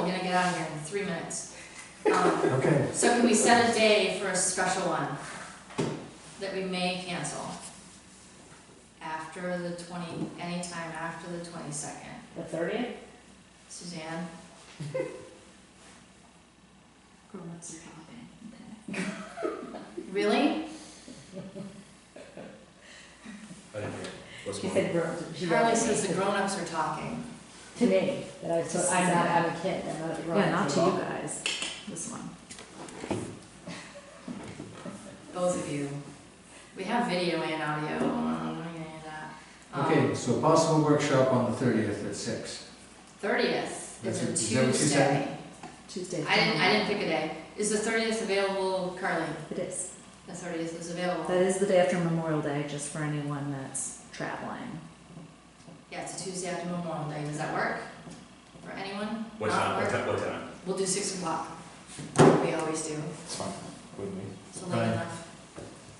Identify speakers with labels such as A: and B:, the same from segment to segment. A: get out of here in three minutes. Um,
B: Okay,
A: So can we set a day for a special one that we may cancel? After the twenty, anytime after the twenty-second.
C: The thirtieth?
A: Suzanne? Really?
D: I didn't hear. What's
C: She
D: wrong?
C: said grown. she said-
A: Charlie says the grown-ups are talking.
C: To me, that I was, I'm not, I'm a kid, I'm not a grown.
E: Yeah, not to you guys, this one.
A: Both of you. We have video and audio, um, we're gonna do that. Um,
B: okay, so possible workshop on the thirtieth at six.
A: Thirtieth
B: That's
A: is
B: what-
A: a
B: is that what you said?
A: Tuesday.
E: Tuesday.
A: I didn't, I didn't pick a day. Is the thirtieth available, Carly?
E: It is.
A: The thirtieth is available.
E: That is the day after Memorial Day, just for anyone that's traveling.
A: Yeah, it's a Tuesday after Memorial Day. Does that work? For anyone?
D: What
A: Not
D: time, what
A: work?
D: time, what time?
A: We'll do six o'clock. We always do.
D: It's fine, with me.
A: So late
B: Fine.
A: enough.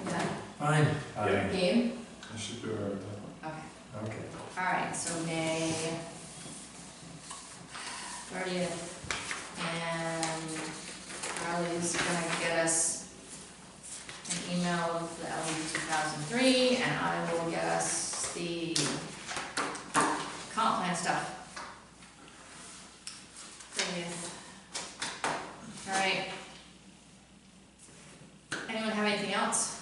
A: Yeah.
B: Fine,
D: Yeah.
A: Game?
D: I should do uh, it.
A: Okay.
B: okay.
A: All right, so May thirtieth, and Carly's gonna get us an email of the LD two thousand three, and I will get us the comp plan stuff. Thirtieth. All right. Anyone have anything else?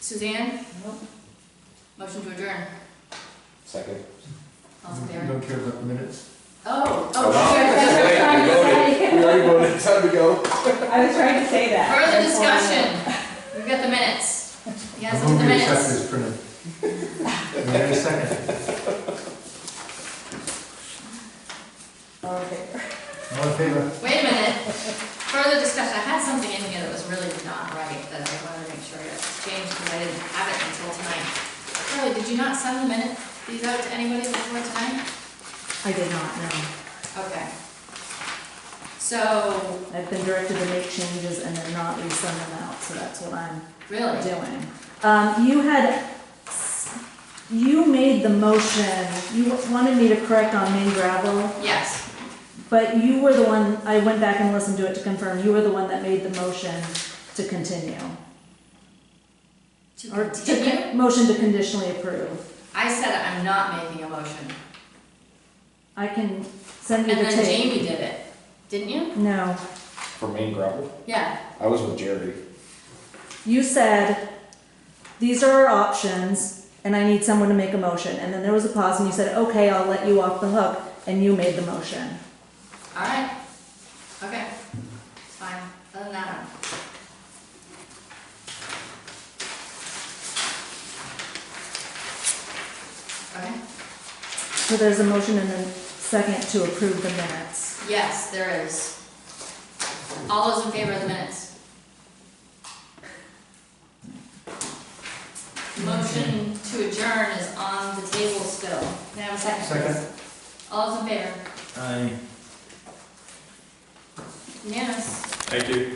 A: Suzanne,
C: Nope.
A: motion to adjourn.
D: Second.
A: All's in
B: You
A: favor?
B: don't care about the minutes?
A: Oh,
D: Oh,
A: oh, sure.
C: trying to say-
D: We already voted, time to go.
C: I was trying to say that.
A: Further
C: That's why I-
A: discussion, we've got the minutes. He has
B: I move
A: the
B: we accept
A: minutes.
B: this printed. Do I hear a second?
C: Okay.
B: All in favor?
A: Wait a minute, further discussion, I had something in here that was really not right, that I wanted to make sure it changed, because I didn't have it until tonight. Carly, did you not send the minute, these out to anybody before tonight?
E: I did not know.
A: Okay. So,
E: I've been directed to make changes and then not resend them out, so that's what I'm
A: really,
E: doing. Um, you had, you made the motion, you wanted me to correct on main gravel.
A: yes,
E: But you were the one, I went back and listened to it to confirm, you were the one that made the motion to continue.
A: to
E: or to con-
A: continue,
E: Motion to conditionally approve.
A: I said I'm not making a motion,
E: I can send
A: and
E: you the
A: then
E: tape.
A: Jamie did it, didn't you?
E: No,
F: For main gravel?
A: Yeah,
F: I was with Jerry.
E: you said, these are our options, and I need someone to make a motion, and then there was a pause, and you said, okay, I'll let you off the hook, and you made the motion.
A: all right, okay, it's fine, doesn't matter. Okay,
E: So there's a motion and a second to approve the minutes.
A: yes, there is. All those in favor of the minutes? Motion to adjourn is on the table still. Can I have a second? please?
B: Second.
A: All those in favor?
B: Aye.
A: Yes.
D: Thank you.